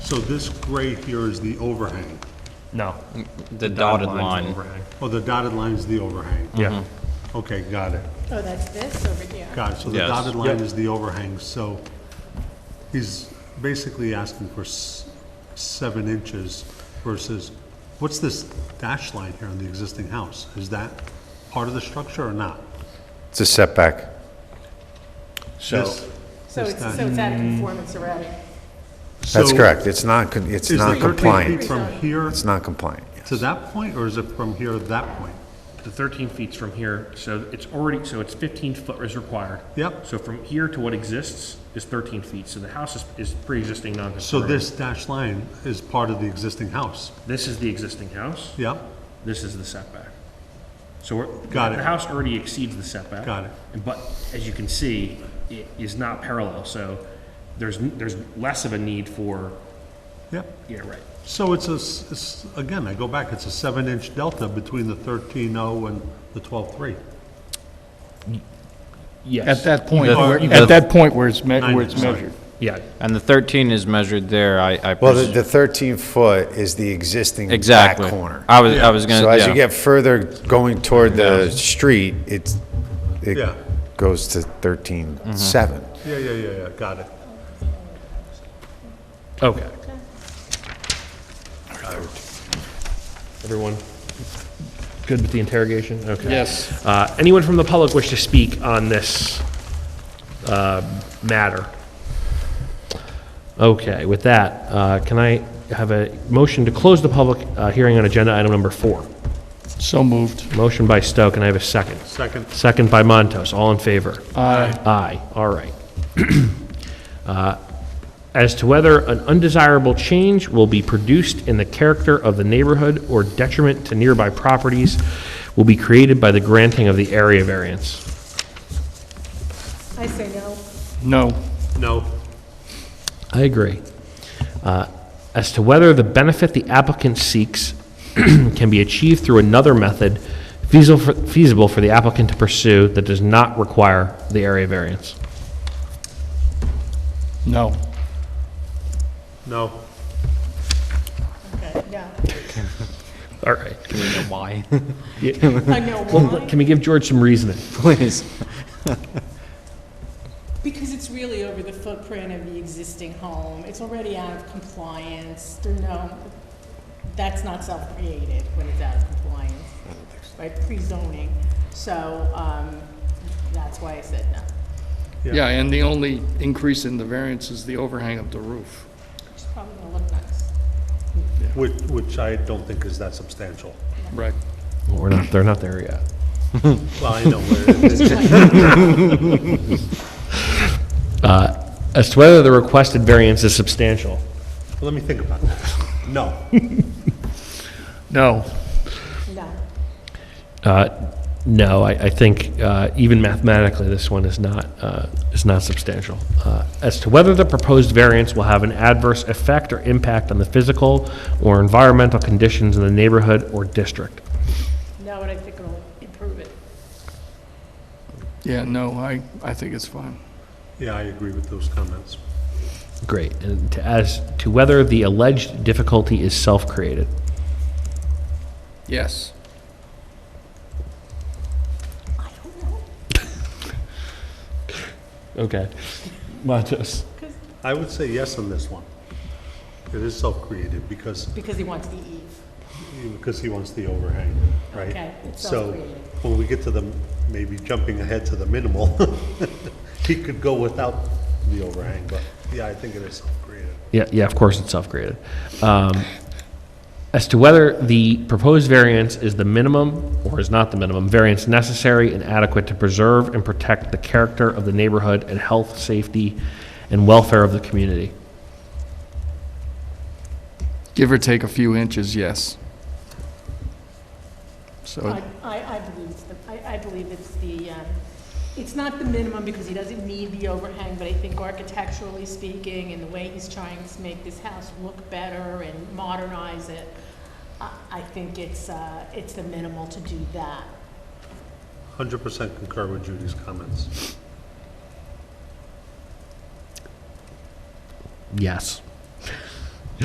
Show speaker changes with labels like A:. A: So this gray here is the overhang.
B: No.
C: The dotted
B: line's
C: line.
B: overhang.
A: Oh, the dotted line is the overhang.
B: Yeah,
A: Okay, got it.
D: Oh, that's this over here.
A: Got it. So the
C: Yes.
A: dotted line
B: Yep.
A: is the overhang, so he's basically asking for s- seven inches versus, what's this dash line here on the existing house? Is that part of the structure or not?
E: It's a setback.
A: So.
D: So
A: This
D: it's,
A: time.
D: so it's out of conformance already.
E: That's correct. It's not, con- it's
A: Is the
E: not
A: 13 feet
E: compliant.
A: from here
E: It's not compliant.
A: to that point, or is it from here to that point?
B: the 13 feet's from here, so it's already, so it's 15 foot is required.
A: Yep.
B: So from here to what exists is 13 feet, so the house is, is pre-existing
A: So
B: non-conforming.
A: this dash line is part of the existing house?
B: This is the existing house,
A: Yep,
B: this is the setback. So we're.
A: Got it.
B: The house already exceeds the setback.
A: Got it.
B: And But as you can see, it is not parallel, so there's, n- there's less of a need for,
A: yep.
B: yeah, right.
A: So it's a, s- it's- again, I go back, it's a seven-inch delta between the 13.0 and the 12.3.
B: Yes.
F: At that point,
C: The-
F: where-
C: the-
F: at that point where it's, me-
A: Nine
F: where it's
A: inch, sorry.
F: measured.
B: Yeah,
C: And the 13 is measured there, I, I.
E: Well, the
C: pres-
E: the 13 foot is the existing back
C: Exactly.
E: corner.
C: I was, I was gonna,
E: So as you
C: yeah.
E: get further going toward the street, it's, it
A: Yeah.
E: goes to 13.7.
A: Yeah, yeah, yeah, yeah, got it.
B: okay. Everyone good with the interrogation? Okay.
F: Yes.
B: Uh, Anyone from the public wish to speak on this uh, matter? Okay, with that, uh, can I have a motion to close the public uh, hearing on agenda item number four?
F: So moved.
B: Motion by Stowe, can I have a second?
A: Second,
B: Second by Montos, all in favor?
F: Aye.
B: Aye, all right. Uh, As to whether an undesirable change will be produced in the character of the neighborhood or detriment to nearby properties will be created by the granting of the area variance.
D: I say no.
F: No.
A: no,
B: I agree. Uh, As to whether the benefit the applicant seeks can be achieved through another method feasible for- feasible for the applicant to pursue that does not require the area variance.
F: No.
A: no.
D: Okay, yeah.
B: All right.
C: Why?
D: I know
B: Well,
D: why.
B: Can we give George some reasoning?
C: Please.
D: Because it's really over the footprint of the existing home. It's already out of compliance. There no, that's not self-created when it's out of compliance, right? Pre-zoning. So, um, that's why I said no.
A: Yeah.
F: Yeah, and the only increase in the variance is the overhang of the roof.
D: It's probably gonna look nice.
A: Which, which I don't think is that substantial.
F: Right.
B: Well, We're not, they're not there yet.
A: Well, I know where it is.
B: As to whether the requested variance is substantial.
A: Let me think about that. No,
F: No.
D: No.
B: Uh, No, I, I think uh, even mathematically, this one is not, uh, is not substantial. Uh, As to whether the proposed variance will have an adverse effect or impact on the physical or environmental conditions in the neighborhood or district.
D: No, and I think it'll improve it.
F: Yeah, no, I, I think it's fine.
A: yeah, I agree with those comments.
B: Great. And to- as to whether the alleged difficulty is self-created.
F: Yes.
D: I don't know.
B: Okay. Montos.
A: I would say yes on this one. It is self-created because,
D: Because he wants the E. eve.
A: because he wants the overhang, right?
D: Okay, it's
A: So
D: self-created.
A: when we get to the, maybe jumping ahead to the minimal, he could go without the overhang, but yeah, I think it is self-created.
B: Yeah, yeah, of course, it's self-created. Um, As to whether the proposed variance is the minimum or is not the minimum variance necessary and adequate to preserve and protect the character of the neighborhood and health, safety, and welfare of the community.
F: Give or take a few inches, yes. So,
D: I, I I believe, it's the- I, I believe it's the, um, it's not the minimum because he doesn't need the overhang, but I think architecturally speaking and the way he's trying to make this house look better and modernize it, I, I think it's, uh, it's the minimal to do that.
A: Hundred percent concur with Judy's comments.
B: Yes.